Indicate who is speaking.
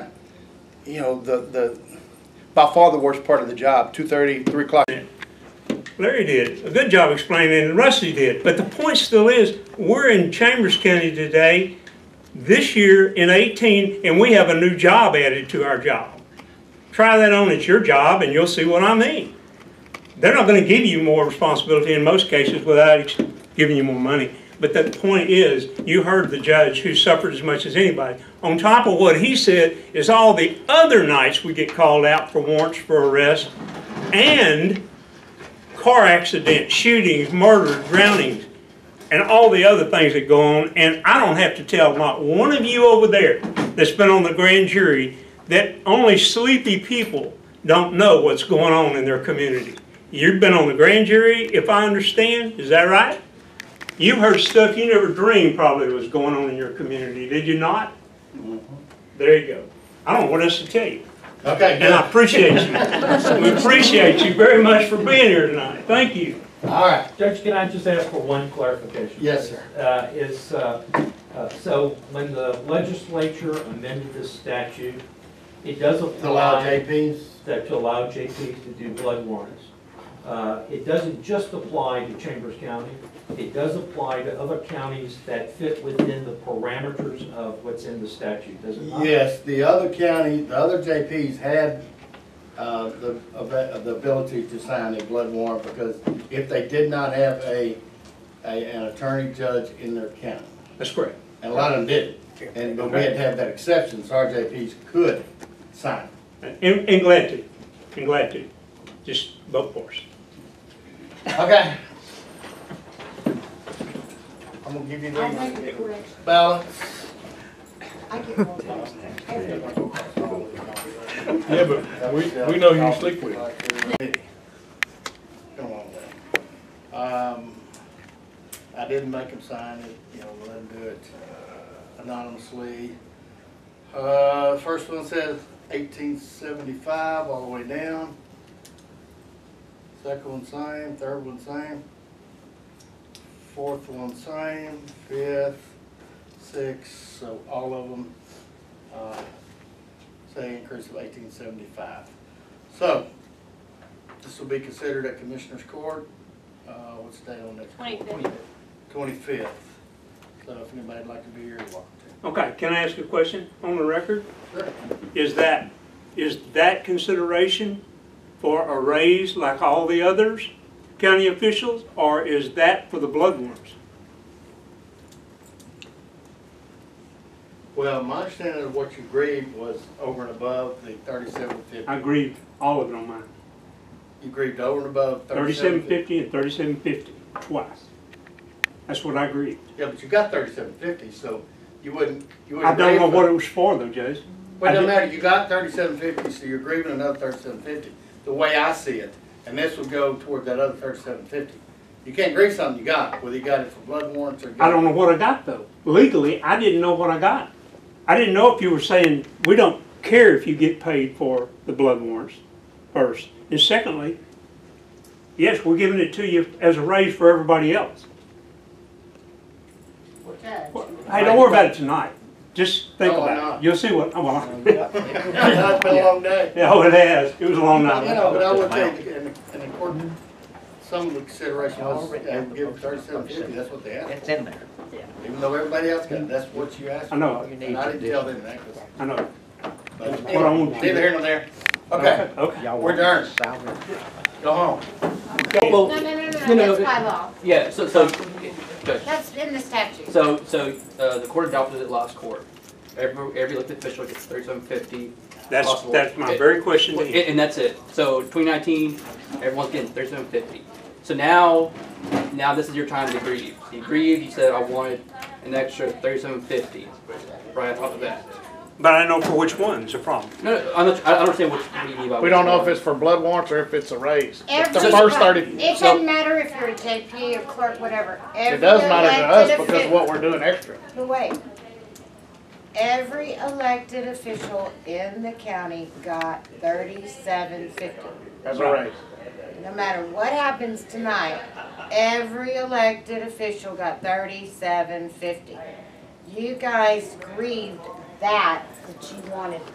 Speaker 1: you know, the, the, by far the worst part of the job, two thirty, three o'clock.
Speaker 2: Larry did a good job explaining, and Rusty did. But the point still is, we're in Chambers County today, this year in 18, and we have a new job added to our job. Try that on at your job, and you'll see what I mean. They're not going to give you more responsibility in most cases without ex- giving you more money. But the point is, you heard the judge who suffered as much as anybody. On top of what he said is all the other nights we get called out for warrants for arrest and car accidents, shootings, murders, drownings, and all the other things that go on. And I don't have to tell not one of you over there that's been on the grand jury that only sleepy people don't know what's going on in their community. You've been on the grand jury, if I understand, is that right? You've heard stuff you never dreamed probably was going on in your community, did you not? There you go. I don't know what else to tell you.
Speaker 3: Okay,
Speaker 2: And
Speaker 3: good.
Speaker 2: I appreciate you. We appreciate you very much for being here tonight. Thank you.
Speaker 3: All right.
Speaker 4: Judge, can I just ask for one clarification?
Speaker 3: Yes, sir.
Speaker 4: Uh, Is, uh, uh, so when the legislature amended this statute, it does
Speaker 3: To allow
Speaker 4: apply
Speaker 3: JPs,
Speaker 4: that to allow JPs to do blood warrants. Uh, It doesn't just apply to Chambers County, it does apply to other counties that fit within the parameters of what's in the statute, does it not?
Speaker 3: yes, the other county, the other JPs had, uh, the, ab- the ability to sign a blood warrant because if they did not have a, a, an attorney judge in their county,
Speaker 2: That's correct.
Speaker 3: and a lot of them didn't. And, but we had to have that exception, so our JPs could sign.
Speaker 2: And, and glad to, and glad to. Just vote for us.
Speaker 3: Okay. I'm gonna give you
Speaker 5: I make a
Speaker 3: the
Speaker 5: correction.
Speaker 3: balance.
Speaker 5: I get more votes. Everyone.
Speaker 6: Yeah, but we, we know you sleep with.
Speaker 3: Come on, Dave. Um, I didn't make him sign it, you know, let him do it anonymously. Uh, first one says eighteen seventy-five, all the way down. Second one same, third one same. Fourth one same, fifth, sixth, so all of them, uh, say increase of eighteen seventy-five. So, this will be considered at Commissioners Court, uh, what's the date on next?
Speaker 5: Twenty-fifth.
Speaker 3: Twenty-fifth, so if anybody'd like to be here, you're welcome
Speaker 2: Okay, can I ask a question on the record?
Speaker 3: to. Sure.
Speaker 2: Is that, is that consideration for a raise like all the others, county officials, or is that for the blood warrants?
Speaker 3: Well, my understanding of what you grieved was over and above the thirty-seven fifty.
Speaker 2: I grieved all of it on mine.
Speaker 3: You grieved over and above
Speaker 2: Thirty-seven
Speaker 3: thirty-seven fifty.
Speaker 2: fifty and thirty-seven fifty, twice. That's what I grieved.
Speaker 3: Yeah, but you got thirty-seven fifty, so you wouldn't, you
Speaker 2: I
Speaker 3: wouldn't.
Speaker 2: don't know
Speaker 3: grieve
Speaker 2: what
Speaker 3: for-
Speaker 2: it was for though, Judge.
Speaker 3: But
Speaker 2: I
Speaker 3: it doesn't
Speaker 2: didn't-
Speaker 3: matter, you got thirty-seven fifty, so you're grieving another thirty-seven fifty, the way I see it. And this would go toward that other thirty-seven fifty. You can't grieve something you got, whether you got it for blood warrants or. you got
Speaker 2: I don't know what I got though. Legally, I didn't know what I got. I didn't know if you were saying, we don't care if you get paid for the blood warrants first. And secondly, yes, we're giving it to you as a raise for everybody else.
Speaker 5: Judge.
Speaker 2: Hey, don't worry about it tonight. Just think
Speaker 3: No, I'm
Speaker 2: about
Speaker 3: not.
Speaker 2: it. You'll see what, oh, well,
Speaker 3: It's been a long day.
Speaker 2: yeah, oh, it has. It was a long
Speaker 3: You know, but I
Speaker 2: night.
Speaker 3: would take, in, in accordance, some of the consideration was, uh, give thirty-seven fifty, that's what they asked.
Speaker 7: It's in there.
Speaker 3: Even though everybody else got, it, that's what you asked.
Speaker 2: I know,
Speaker 7: You need
Speaker 3: And I
Speaker 7: to
Speaker 3: didn't
Speaker 7: do.
Speaker 3: tell them that, because,
Speaker 2: I know.
Speaker 3: but
Speaker 2: What I want
Speaker 3: anyway,
Speaker 2: you to-
Speaker 3: neither here nor there. Okay,
Speaker 2: Okay.
Speaker 3: We're done.
Speaker 7: Salary.
Speaker 3: go home.
Speaker 5: No,
Speaker 8: Well,
Speaker 5: no, no, no,
Speaker 8: No, no,
Speaker 5: that's by law.
Speaker 8: yeah, so, so, Judge,
Speaker 5: That's in the statute.
Speaker 8: so, so, uh, the court adopted it last court. Every, every elected official gets thirty-seven fifty,
Speaker 2: That's, that's my very question to
Speaker 8: and,
Speaker 2: you.
Speaker 8: and that's it. So twenty nineteen, everyone's getting thirty-seven fifty. So now, now this is your time to grieve. You grieved, you said, I wanted an extra thirty-seven fifty, right on top of that.
Speaker 2: But I know for which one's the problem.
Speaker 8: No, no, I'm not, I I don't understand what what you mean by.
Speaker 6: We don't know if it's for blood warrants or if it's a raise. The
Speaker 5: Every-
Speaker 6: first thirty,
Speaker 5: It doesn't matter if you're a JP or clerk, whatever.
Speaker 6: it does matter to us because what we're doing extra.
Speaker 5: But wait. Every elected official in the county got thirty-seven fifty.
Speaker 6: That's a raise.
Speaker 5: No matter what happens tonight, every elected official got thirty-seven fifty. You guys grieved that, that you wanted